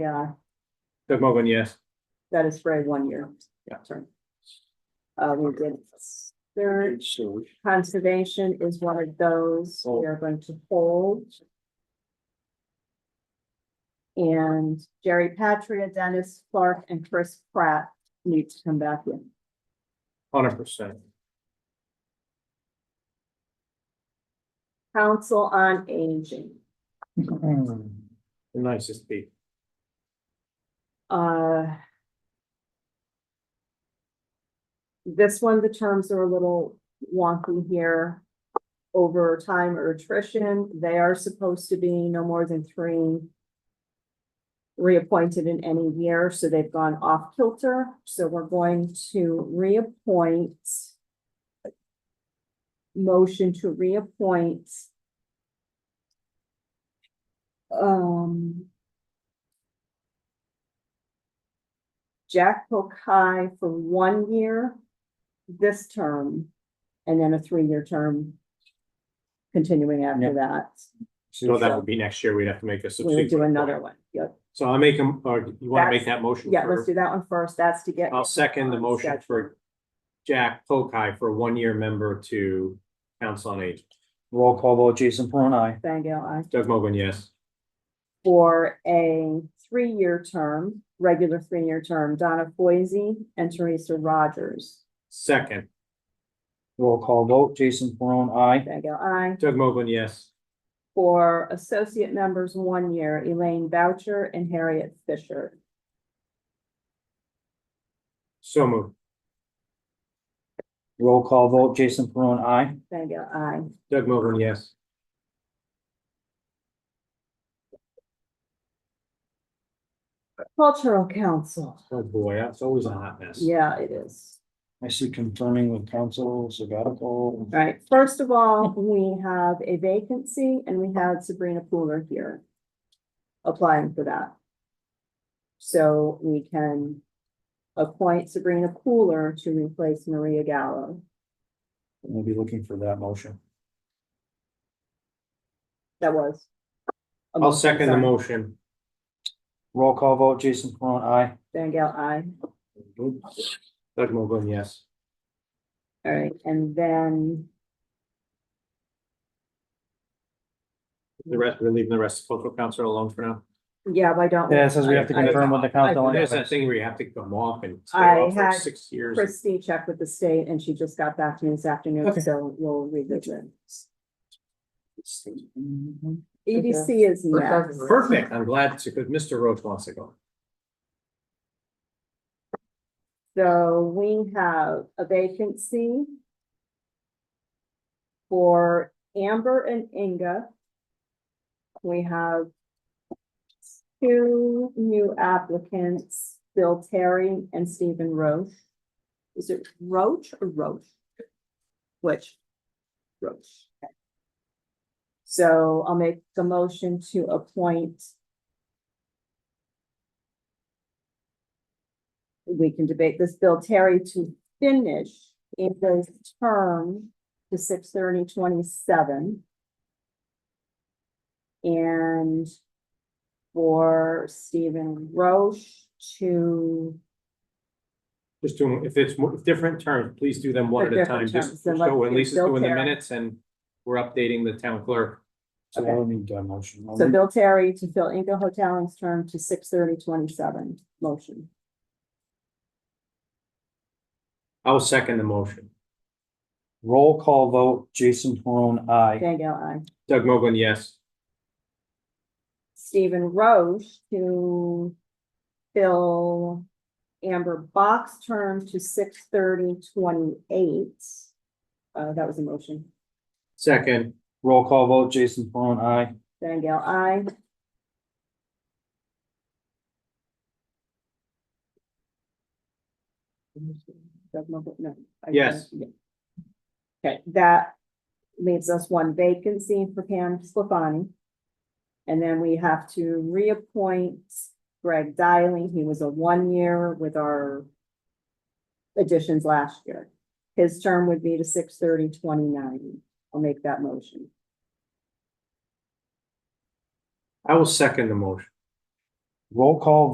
Yeah, Doug Morgan, yes. that is for a one-year Yeah. term. Uh, we did search, conservation is one of those we are going to hold. And Jerry Patria, Dennis Clark, and Chris Pratt need to come back in. Hundred percent. Council on Aging. The nicest people. Uh. This one, the terms are a little wonky here. Over time or attrition, they are supposed to be no more than three. Reappointed in any year, so they've gone off kilter, so we're going to reappoint. Motion to reappoint. Um. Jack Pokai for one year this term, and then a three-year term continuing after that. So that would be next year. We'd have to make a We would substitute. do another one. Yep. So I'll make him, or you want to make that motion? Yeah, for- let's do that one first. That's to get. I'll second the motion for Jack Pokai for a one-year member to Council on Aging. Roll call vote, Jason Peron, I. Thank you. I, Doug Morgan, yes. for a three-year term, regular three-year term, Donna Foisy and Teresa Rogers. Second, Roll call vote, Jason Peron, I. Thank you. I, Doug Morgan, yes. for associate members, one year, Elaine Boucher and Harriet Fisher. So moved. Roll call vote, Jason Peron, I. Thank you. I. Doug Morgan, yes. Cultural Council. Oh, boy, that's always a hot mess. Yeah, it is. I see confirming with council, sabbatical. All right, first of all, we have a vacancy and we had Sabrina Pooler here applying for that. So we can appoint Sabrina Pooler to replace Maria Gallo. We'll be looking for that motion. That was. a I'll motion, second the sorry. motion. Roll call vote, Jason Peron, I. Van Gale, aye. Doug Morgan, yes. All right, and then The rest, we're leaving the rest of cultural council alone for now. Yeah, but I don't. Yeah, it says we have to confirm with the council. There's that thing where you have to come off and stay I off for had six years. Christie checked with the state and she just got back to me this afternoon, Okay. so we'll revisit. EDC E is next. Perfect, I'm glad to, because Mr. Roach wants to go. So we have a vacancy for Amber and Inga. We have two new applicants, Bill Terry and Stephen Roach. Is it Roach or Roach? Which? Roach. Okay. So I'll make the motion to appoint we can debate this bill, Terry, to finish Amber's term to six thirty twenty-seven. And for Stephen Roche to. Just do, if it's more- different terms, please do them one at a time, Different just terms, then so let's at do least it's Bill doing the Terry. minutes and we're updating the town clerk. So I need that motion. So Bill Terry to fill Inga Hoteling's term to six thirty twenty-seven, motion. I'll second the motion. Roll call vote, Jason Peron, I. Thank you, I. Doug Mogul, yes. Stephen Roche to fill Amber Box term to six thirty twenty-eight. Uh, that was a motion. Second, Roll call vote, Jason Peron, I. Van Gale, I. Doug Mogul, no, I- Yes. yeah. Okay, that leaves us one vacancy for Pam Sclafani. And then we have to reappoint Greg Dialing. He was a one-year with our additions last year. His term would be to six thirty twenty-nine. I'll make that motion. I will second the motion. Roll call